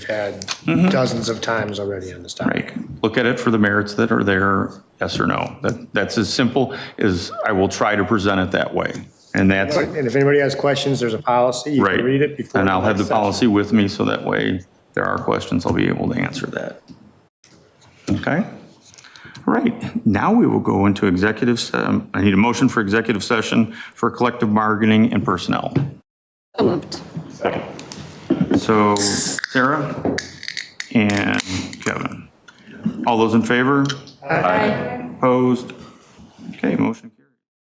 had Mm-hmm. dozens of times already on this topic. Right. Look at it for the merits that are there, yes or no. That, that's as simple as I will try to present it that way. And that's, And if anybody has questions, there's a policy, you right. can read it before. And I'll have the next session. policy with me so that way if there are questions, I'll be able to answer that. Okay? All right. Now we will go into executive, se- um, I need a motion for executive session for collective bargaining and personnel. So moved. So Sarah and Kevin. All those in favor? Aye. Opposed? Okay, motion carries.